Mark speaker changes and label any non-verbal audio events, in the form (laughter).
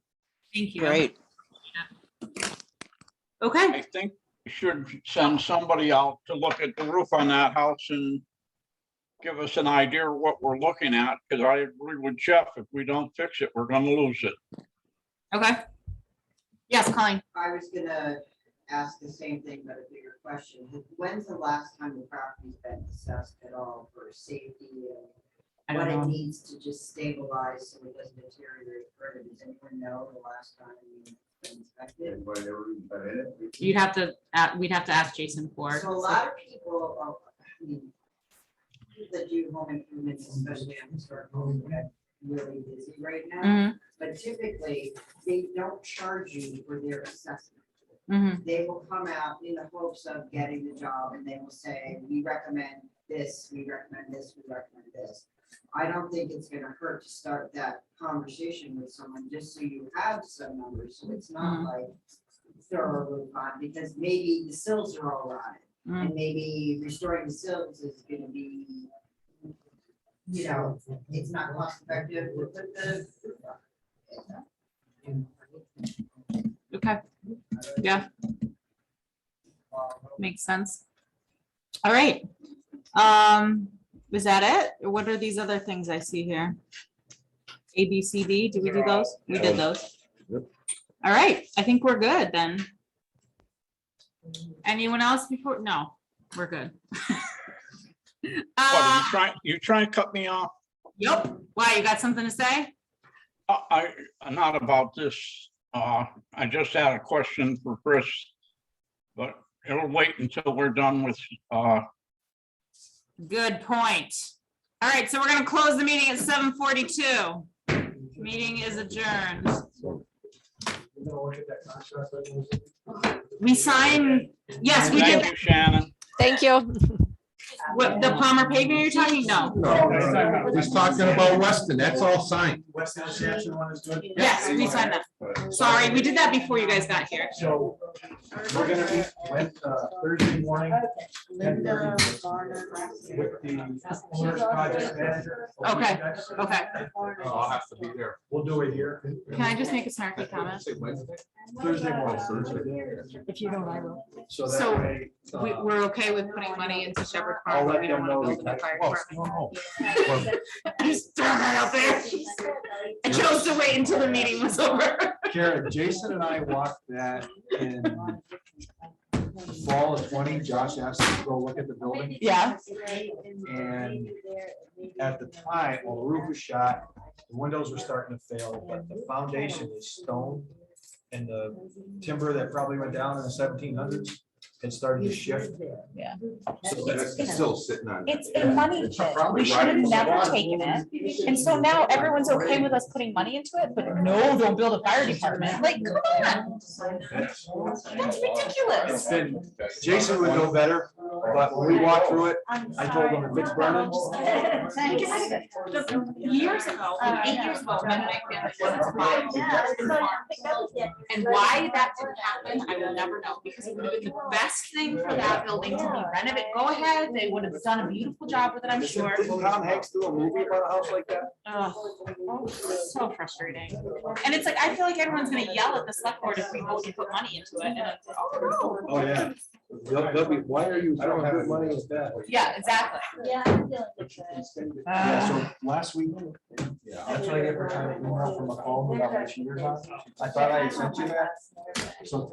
Speaker 1: Thank you.
Speaker 2: Great.
Speaker 1: Okay,
Speaker 3: I think we should send somebody out to look at the roof on that house and give us an idea of what we're looking at, because I agree with Jeff, if we don't fix it, we're gonna lose it.
Speaker 1: okay. Yes, Colleen,
Speaker 4: I was gonna ask the same thing, but a bigger question. When's the last time the property's been assessed at all for safety
Speaker 1: I
Speaker 4: and
Speaker 1: don't
Speaker 4: what it
Speaker 1: know.
Speaker 4: needs to just stabilize so it doesn't deteriorate further? Does anyone know the last time it's been inspected?
Speaker 5: Anybody ever even been in it?
Speaker 1: you'd have to, a- we'd have to ask Jason for. it.
Speaker 4: So a lot of people, oh, I mean, people that do home improvements, especially on historic homes, that are really busy right now.
Speaker 1: Mhm,
Speaker 4: But typically, they don't charge you for their assessment.
Speaker 1: mhm.
Speaker 4: they will come out in the hopes of getting the job and they will say, we recommend this, we recommend this, we recommend this. I don't think it's gonna hurt to start that conversation with someone, just so you have some numbers, so it's not
Speaker 1: Mhm.
Speaker 4: like thorough on, because maybe the sills are all rotted. And maybe restoring the sills is gonna be, you know, it's not cost effective, we'll put the. roof on.
Speaker 1: Okay, Yeah. makes sense. All right. Um, is that it? What are these other things I see here? A, B, C, D, did we do those? We did those.
Speaker 5: Yep.
Speaker 1: All right, I think we're good then. Anyone else before? No, we're good. (laughs)
Speaker 3: But you
Speaker 1: Uh,
Speaker 3: try, you try and cut me off,
Speaker 1: Yep, why, you got something to say?
Speaker 3: Uh, I, I- not about this, uh, I just had a question for Chris. But it'll wait until we're done with, uh,
Speaker 1: Good point. All right, so we're gonna close the meeting at seven forty-two. Meeting is adjourned. We sign, yes, we
Speaker 3: thank
Speaker 1: did,
Speaker 3: you, Shannon.
Speaker 6: Thank you.
Speaker 1: what, the Palmer paving you're talking, no,
Speaker 5: No, he's talking about Weston, that's all signed.
Speaker 7: West End Saxon one is good.
Speaker 1: yes, we signed that. Sorry, we did that before you guys got here.
Speaker 7: So we're gonna be went uh, Thursday morning
Speaker 4: Linda, Varner,
Speaker 7: with the owner's project manager. Uh,
Speaker 1: Okay, okay.
Speaker 5: I'll have to be there.
Speaker 7: We'll do it here.
Speaker 1: Can I just make a snarky comment?
Speaker 7: Thursday
Speaker 5: Oh,
Speaker 7: morning.
Speaker 6: If you don't, I will.
Speaker 7: So
Speaker 1: So,
Speaker 7: that way. uh,
Speaker 1: We, we're okay with putting money into Shepherd Farm,
Speaker 7: I'll
Speaker 1: but
Speaker 7: let
Speaker 1: we don't
Speaker 7: them
Speaker 1: wanna
Speaker 7: know
Speaker 1: build
Speaker 7: we
Speaker 1: a new
Speaker 7: got-
Speaker 1: fire
Speaker 7: oh,
Speaker 1: department. (laughs)
Speaker 5: no,
Speaker 1: Just throwing that out there. I chose to wait until the meeting was over.
Speaker 7: Karen, Jason and I walked that in fall of twenty. Josh asked us to go look at the building.
Speaker 1: Yeah.
Speaker 7: And at the time, well, the roof was shot, the windows were starting to fail, but the foundation is stone. And the timber that probably went down in the seventeen hundreds, it started to shift.
Speaker 6: Yeah.
Speaker 7: So that's-
Speaker 5: It's still sitting on.
Speaker 6: It's a money pit. We should have never taken it. And so now everyone's okay with us putting money into it, but no, don't build a fire department. Like, come on,
Speaker 7: that's-
Speaker 6: that's ridiculous.
Speaker 7: It's been, Jason would know better, but when we walked through it, I told him if it's
Speaker 6: (laughs)
Speaker 7: burning.
Speaker 1: Years ago, like eight years ago, my family was buying And
Speaker 8: And
Speaker 1: why that didn't happen, I will never know, because it would have been the best thing for that building to be renovated. Go ahead, they would have done a beautiful job with it, I'm sure.
Speaker 7: Didn't Tom Hanks do a movie about a house like that?
Speaker 1: Ugh, so frustrating. And it's like, I feel like everyone's gonna yell at the select board if we vote to put money into it. and it's like, oh, no.
Speaker 7: Oh, yeah. They'll, they'll be, why are you throwing good money at that?
Speaker 1: Yeah, exactly.
Speaker 8: Yeah. I'm feeling good.
Speaker 6: Uh,
Speaker 7: Yeah, so last week, that's what I get for trying to email from a phone about my cheaters on. I thought I had sent you that. So